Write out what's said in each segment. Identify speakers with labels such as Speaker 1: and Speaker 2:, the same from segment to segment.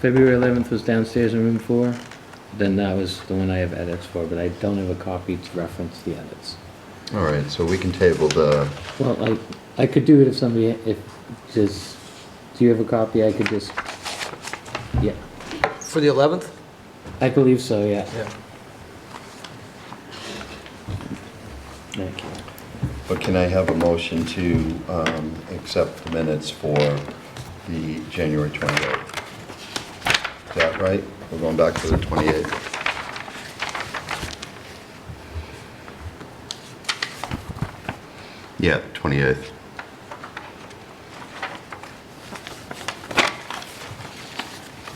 Speaker 1: February 11th was downstairs in room four, then that was the one I have edits for, but I don't have a copy to reference the edits.
Speaker 2: All right, so we can table the,
Speaker 1: Well, I, I could do it if somebody, if, just, do you have a copy? I could just, yeah,
Speaker 3: For the 11th?
Speaker 1: I believe so, yeah.
Speaker 3: Yeah.
Speaker 1: Thank you.
Speaker 2: but can I have a motion to um, accept the minutes for the January 28th? Is that right? We're going back to the 28th. Yeah, 28th.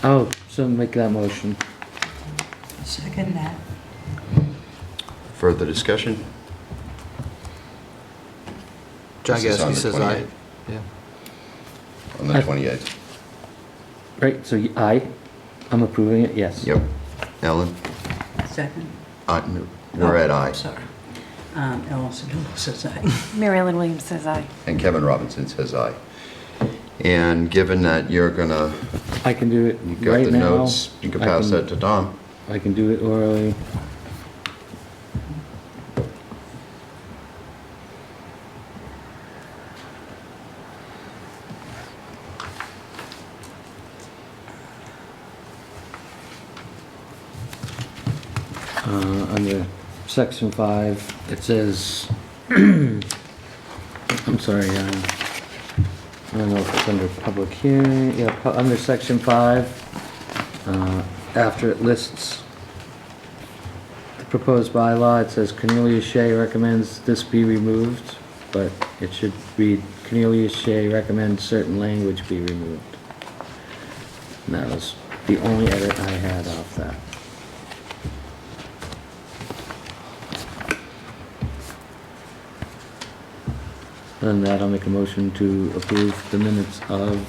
Speaker 1: Oh, so make that motion.
Speaker 4: Second that.
Speaker 2: Further discussion?
Speaker 3: John
Speaker 2: This is on
Speaker 3: Gasky
Speaker 2: the
Speaker 3: says aye.
Speaker 2: 28th.
Speaker 3: Yeah.
Speaker 2: On the
Speaker 1: I-
Speaker 2: 28th.
Speaker 1: Right, so y- I, I'm approving it, yes.
Speaker 2: Yep. Ellen?
Speaker 4: Second?
Speaker 2: Uh, no, We're at
Speaker 4: Oh,
Speaker 2: aye.
Speaker 4: Sorry. Um, Ellen Sedillo says aye.
Speaker 5: Mary Ellen Williams says aye.
Speaker 2: And Kevin Robinson says aye. And given that you're gonna,
Speaker 1: I can do it
Speaker 2: you got
Speaker 1: right
Speaker 2: the
Speaker 1: now.
Speaker 2: notes, you can
Speaker 1: I
Speaker 2: pass that to Tom.
Speaker 1: I can do it orally. Uh, under section five, it says, I'm sorry, um, I don't know if it's under public hearing, yeah, pu- under section five, uh, after it lists the proposed bylaw, it says Cornelius Shea recommends this be removed, but it should read Cornelius Shea recommends certain language be removed. And that was the only edit I had off that. Other than that, I'll make a motion to approve the minutes of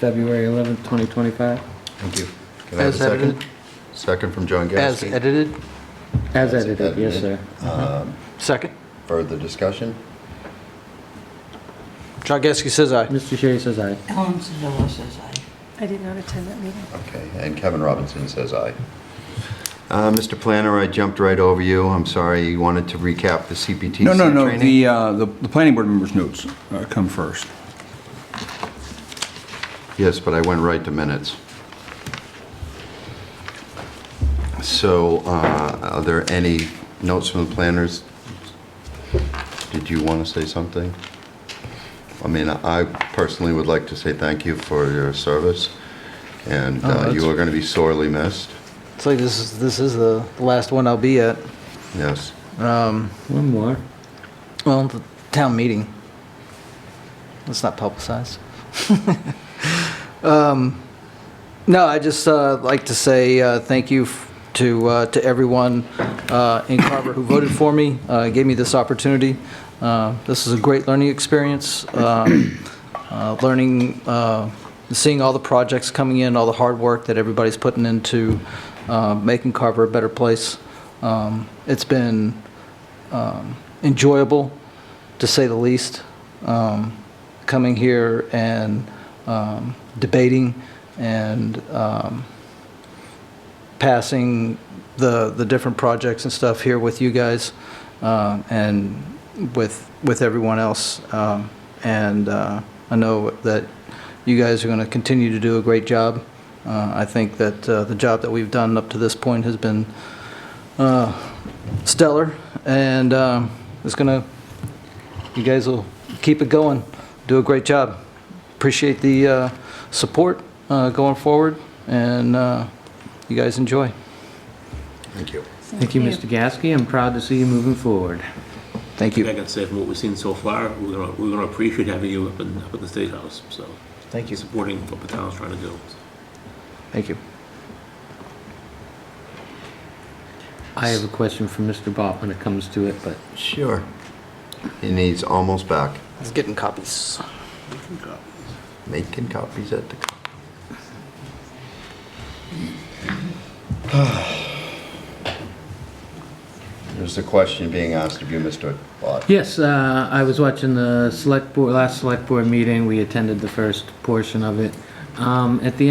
Speaker 1: February 11th, 2025,
Speaker 2: Thank you. Can I have a
Speaker 3: As edited.
Speaker 2: second? Second from John
Speaker 3: As
Speaker 2: Gasky.
Speaker 3: edited,
Speaker 1: as edited, yes, sir.
Speaker 2: edited. Um,
Speaker 3: second.
Speaker 2: Further discussion?
Speaker 3: John Gasky says aye.
Speaker 1: Mr. Shea says aye.
Speaker 4: Ellen Sedillo says aye.
Speaker 5: I did not attend that meeting.
Speaker 2: Okay, and Kevin Robinson says aye. Uh, Mr. Planner, I jumped right over you. I'm sorry. You wanted to recap the CPTC training?
Speaker 6: No, no, no, the, uh, the the planning board members' notes uh, come first.
Speaker 2: Yes, but I went right to minutes. So uh, are there any notes from the planners? Did you want to say something? I mean, I personally would like to say thank you for your service, and
Speaker 3: Oh,
Speaker 2: uh, you
Speaker 3: that's-
Speaker 2: are going to be sorely missed.
Speaker 3: It's like this is, this is the the last one I'll be at.
Speaker 2: Yes.
Speaker 3: Um,
Speaker 1: One more.
Speaker 3: Well, the town meeting. Let's not publicize. Um, No, I just uh, like to say uh, thank you f- to, uh, to everyone uh, in Carver who voted for me, uh, gave me this opportunity. Uh, This is a great learning experience, um, uh, learning, uh, seeing all the projects coming in, all the hard work that everybody's putting into uh, making Carver a better place. Um, It's been um, enjoyable, to say the least, um, coming here and um, debating and um, passing the, the different projects and stuff here with you guys um, and with, with everyone else. Um, And uh, I know that you guys are going to continue to do a great job. Uh, I think that uh, the job that we've done up to this point has been uh, stellar, and um, it's gonna, you guys will keep it going, do a great job. Appreciate the uh, support uh, going forward, and uh, you guys enjoy.
Speaker 2: Thank you.
Speaker 1: Thank you, Mr. Gasky. I'm proud to see you moving forward.
Speaker 3: Thank
Speaker 7: I
Speaker 3: you.
Speaker 7: can say from what we've seen so far, we're gonna, we're gonna appreciate having you up in, up at the State House, so.
Speaker 3: Thank you.
Speaker 7: Supporting what the town's trying to do.
Speaker 3: Thank you.
Speaker 1: I have a question for Mr. Bott when it comes to it, but
Speaker 2: Sure. He needs almost back,
Speaker 3: It's getting copies.
Speaker 2: making copies at the... co- There's a question being asked of you, Mr. Bott.
Speaker 1: Yes, uh, I was watching the select board, last select board meeting. We attended the first portion of it. Um, At the end.